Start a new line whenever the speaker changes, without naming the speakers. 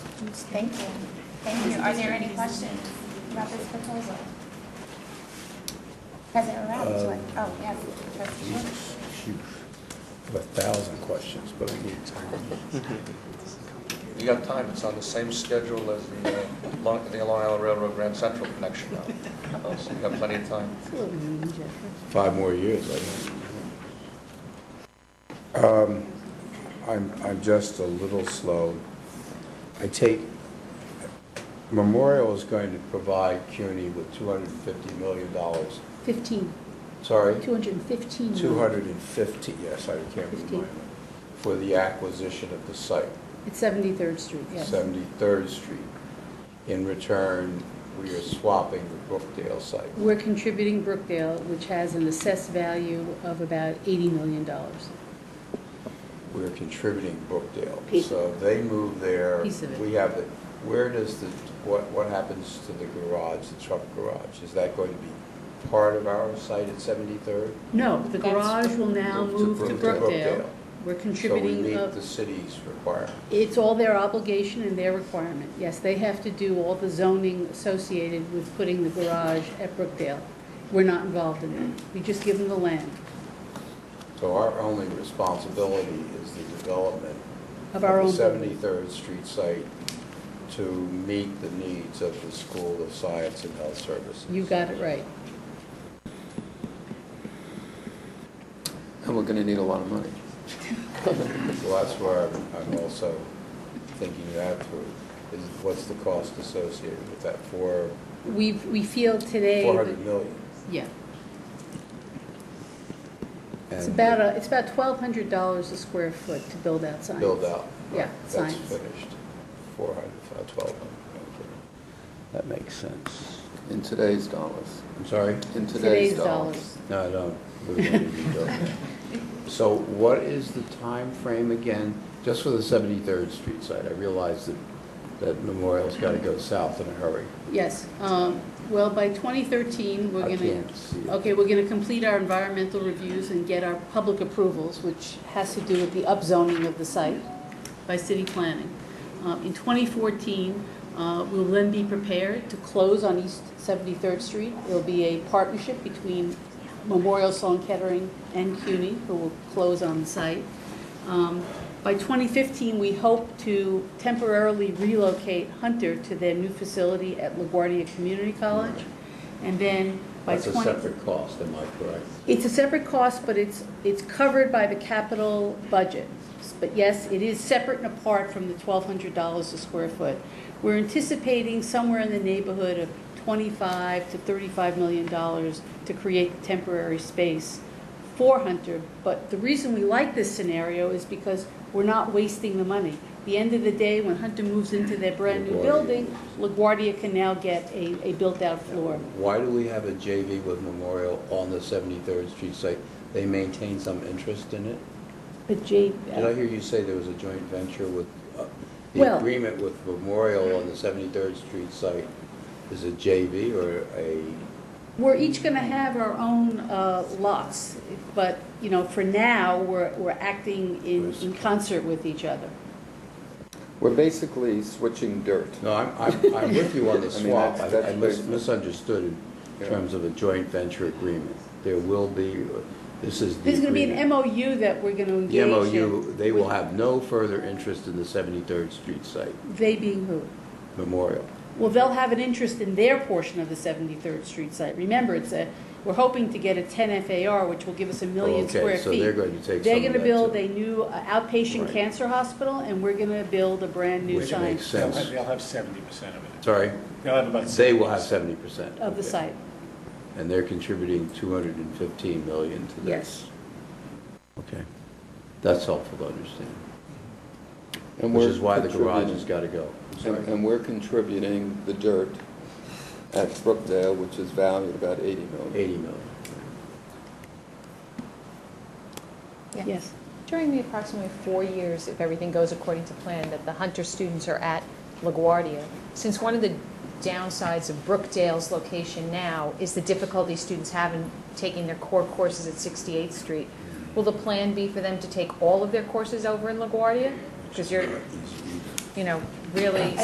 Thank you. Thank you. Are there any questions about this proposal? President Rounds, what, oh, yes, trustee Schwartz.
Huge, a thousand questions, but we need time.
You got time, it's on the same schedule as the uh, Long the Long Island Railroad Grand Central connection now. So you got plenty of time.
Five more years, I think. Um, I'm, I'm just a little slow. I take, Memorial is going to provide CUNY with $250 million.
15,
Sorry?
215.
250, yes, I can't
Fifteen.
remember, for the acquisition of the site.
It's 73rd Street, yes.
73rd Street. In return, we are swapping the Brookdale site.
We're contributing Brookdale, which has an assessed value of about $80 million.
We're contributing Brookdale.
Piece.
So they move there.
Piece of it.
We have it. Where does the, what, what happens to the garage, the truck garage? Is that going to be part of our site at 73rd?
No, the
That's-
garage will now
Move to
move to
Brookdale.
Brookdale.
Brookdale.
We're
So we
contributing,
meet
a-
the city's requirement.
it's all their obligation and their requirement. Yes, they have to do all the zoning associated with putting the garage at Brookdale. We're not involved in that. We just give them the land
So our only responsibility is the development
of our own
the
building.
73rd Street site to meet the needs of the School of Science and Health Services.
You got it right.
And we're gonna need a lot of money.
Well, that's where I'm- I'm also thinking that through, is what's the cost associated with that, four,
We, we feel today. that-
400 million?
Yeah. It's
And
about, a- it's about twelve hundred dollars a square foot to build out signs.
Build out.
Yeah,
That's
signs.
finished, 400, uh, 1,200. okay. That makes sense.
In today's dollars.
I'm sorry?
In
Today's
today's
dollars.
dollars.
No, I don't. We wouldn't even go there. So what is the time frame again, just for the 73rd Street side? I realize that, that Memorial's got to go south in a hurry.
Yes, um, well, by twenty thirteen, we're
I
gonna.
can't see it.
Okay, we're gonna complete our environmental reviews and get our public approvals, which has to do with the upzoning of the site by city planning. Uh, in twenty fourteen, uh, we'll then be prepared to close on East Seventy-third Street. It'll be a partnership between Memorial Sloan Kettering and CUNY, who will close on the site. Um, By 2015, we hope to temporarily relocate Hunter to their new facility at LaGuardia Community College. And then by
That's
20...
a separate cost, am I correct?
It's a separate cost, but it's, it's covered by the capital budget. But yes, it is separate and apart from the twelve hundred dollars a square foot. We're anticipating somewhere in the neighborhood of twenty-five to thirty-five million dollars to create temporary space for Hunter. But the reason we like this scenario is because we're not wasting the money. The end of the day, when Hunter moves into their brand-new
LaGuardia.
building, LaGuardia can now get a, a built-out floor.
Why do we have a JV with Memorial on the 73rd Street site? They maintain some interest in it?
But Jay,
Did I hear you say there was a joint venture with, uh, the
Well-
agreement with Memorial on the 73rd Street site is a JV or a
We're each going to have our own uh, lots, but, you know, for now, we're, we're acting in, in concert with each other.
We're basically switching dirt.
No, I'm, I'm, I'm with you on the
I mean,
swap.
that's-
I I
that's
mis-
big.
misunderstood in
Yeah.
terms of a joint venture agreement. There will be, this is the
There's going to be an
agreement.
MOU that we're going to engage
The
in.
MOU, they will have no further interest in the 73rd Street site
They being who?
memorial.
Well, they'll have an interest in their portion of the 73rd Street site. Remember, it's a, we're hoping to get a 10 FAR, which will give us a million
Okay,
square feet.
so they're going to take
They're
some of
gonna
that,
build
too.
a new uh,
Right.
outpatient cancer hospital, and we're going to build a brand-new
Which
sign
makes
They'll
sense.
have- they'll have seventy percent of it.
Sorry,
They'll have about.
they will have 70%.
of
Okay.
the site.
And they're contributing 215 million to this.
Yes.
Okay. That's helpful to understand,
And
which
we're
is why the garage
contributing-
has got to go. I'm sorry.
And and we're contributing the dirt at Brookdale, which is valued about 80 million.
80 million.
Yeah.
Yes.
During the approximately four years, if everything goes according to plan, that the Hunter students are at LaGuardia, since one of the downsides of Brookdale's location now is the difficulty students have in taking their core courses at 68th Street, will the plan be for them to take all of their courses over in LaGuardia? Because you're, you know, really,